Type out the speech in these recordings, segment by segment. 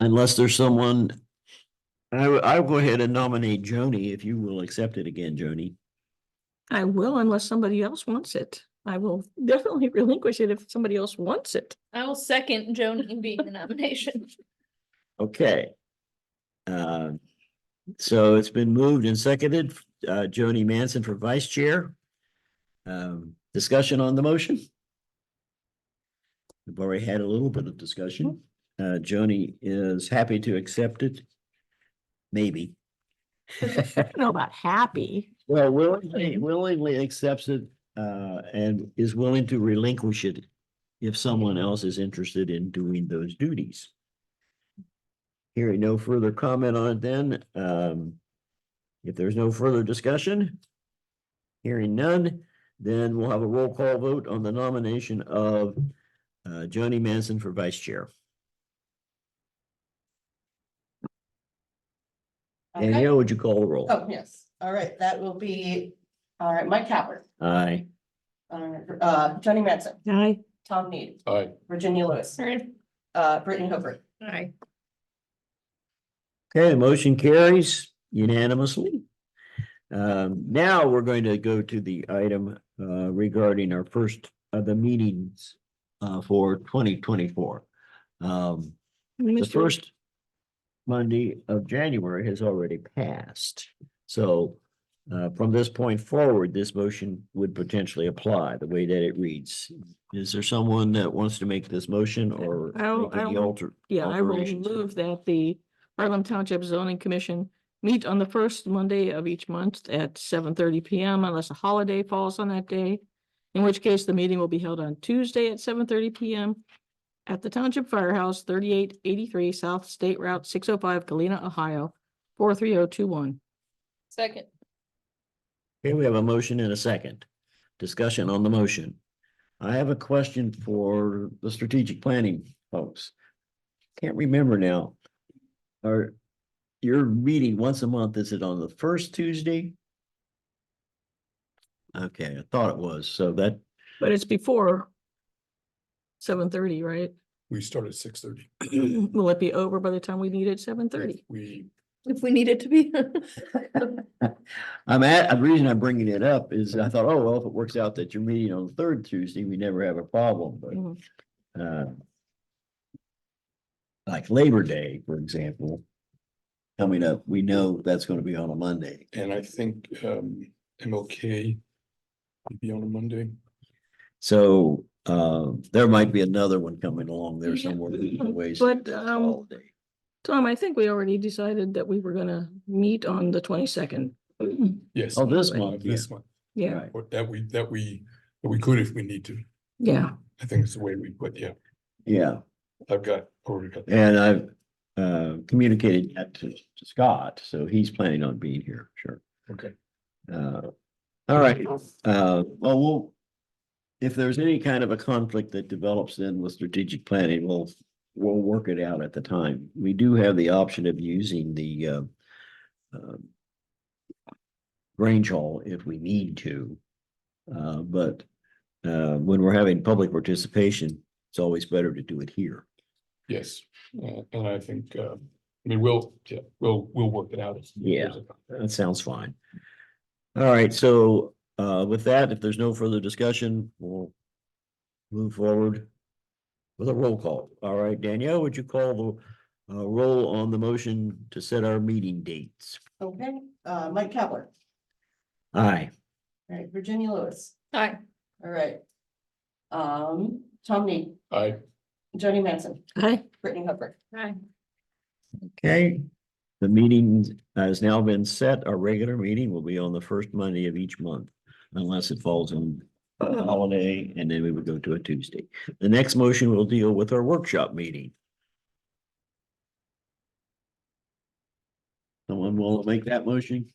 Unless there's someone. I, w- I'll go ahead and nominate Joni if you will accept it again, Joni. I will unless somebody else wants it. I will definitely relinquish it if somebody else wants it. I will second Joni being the nomination. Okay. Uh, So it's been moved and seconded, uh, Joni Manson for vice chair. Um, discussion on the motion? We've already had a little bit of discussion. Uh, Joni is happy to accept it. Maybe. I don't know about happy. Well, willingly, willingly accepts it, uh, and is willing to relinquish it if someone else is interested in doing those duties. Hearing no further comment on it then, um, if there's no further discussion, hearing none, then we'll have a roll call vote on the nomination of, uh, Joni Manson for vice chair. Okay. Danielle, would you call the roll? Oh, yes. All right, that will be, all right, Mike Capler, Aye. uh, Johnny Manson, I, Tom Need, Aye. Virginia Lewis, uh, Brittany Hooper. Aye. Okay, motion carries unanimously. Um, now we're going to go to the item, uh, regarding our first of the meetings, uh, for twenty twenty-four. Um, the Mr. first Monday of January has already passed. So, uh, from this point forward, this motion would potentially apply the way that it reads. Is there someone that wants to make this motion or I'll- make any I'll- alter? Yeah, I will alterations? move that the Harlem Township Zoning Commission meet on the first Monday of each month at seven thirty PM unless a holiday falls on that day. In which case the meeting will be held on Tuesday at seven thirty PM at the Township Firehouse, thirty-eight eighty-three South State Route six oh five, Galena, Ohio, four three oh two one. Second. Okay, we have a motion and a second. Discussion on the motion. I have a question for the strategic planning folks. Can't remember now. Are your meeting once a month, is it on the first Tuesday? Okay, I thought it was, so that, But it's before seven thirty, right? We start at six thirty. Will it be over by the time we meet at seven thirty? We, If we need it to be. I'm at, the reason I'm bringing it up is I thought, oh, well, if it works out that you're meeting on the third Tuesday, we never have a problem, but Mm-hmm. uh, like Labor Day, for example, coming up, we know that's going to be on a Monday. and I think um MLK would be on a Monday. So uh, there might be another one coming along there Yeah. somewhere. in the ways. But, um, Tom, I think we already decided that we were gonna meet on the twenty-second. Yes. Oh, this of month, yeah. This month, Yeah, Right. or that we, that we, that we could if we need to. yeah. I think it's the way we, but yeah, Yeah, I've got, already got. and I've uh, communicated that to to Scott, so he's planning on being here, sure. Okay. Uh, All right, Uh, well, we'll, if there's any kind of a conflict that develops then with strategic planning, we'll, we'll work it out at the time. We do have the option of using the, uh, um, Grange Hall if we need to. Uh, but, uh, when we're having public participation, it's always better to do it here. Yes, uh, and I think, uh, I mean, we'll, yeah, we'll, we'll work it out. Yeah. That sounds fine. All right, so uh with that, if there's no further discussion, we'll move forward with a roll call. All right, Danielle, would you call the uh roll on the motion to set our meeting dates? Okay, uh, Mike Capler, Aye. all right, Virginia Lewis, Aye. all right. Um, Tom Need, I, Johnny Manson, Hi, Brittany Hooper. Aye. Okay. The meeting has now been set. Our regular meeting will be on the first Monday of each month unless it falls on a holiday and then we would go to a Tuesday. The next motion will deal with our workshop meeting. Someone will make that motion?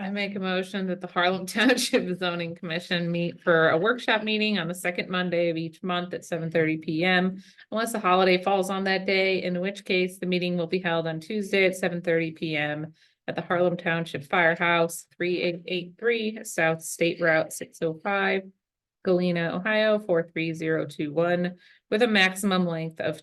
I make a motion that the Harlem Township Zoning Commission meet for a workshop meeting on the second Monday of each month at seven thirty PM. Unless a holiday falls on that day, in which case the meeting will be held on Tuesday at seven thirty PM at the Harlem Township Firehouse, three eight eight three South State Route six oh five, Galena, Ohio, four three zero two one, with a maximum length of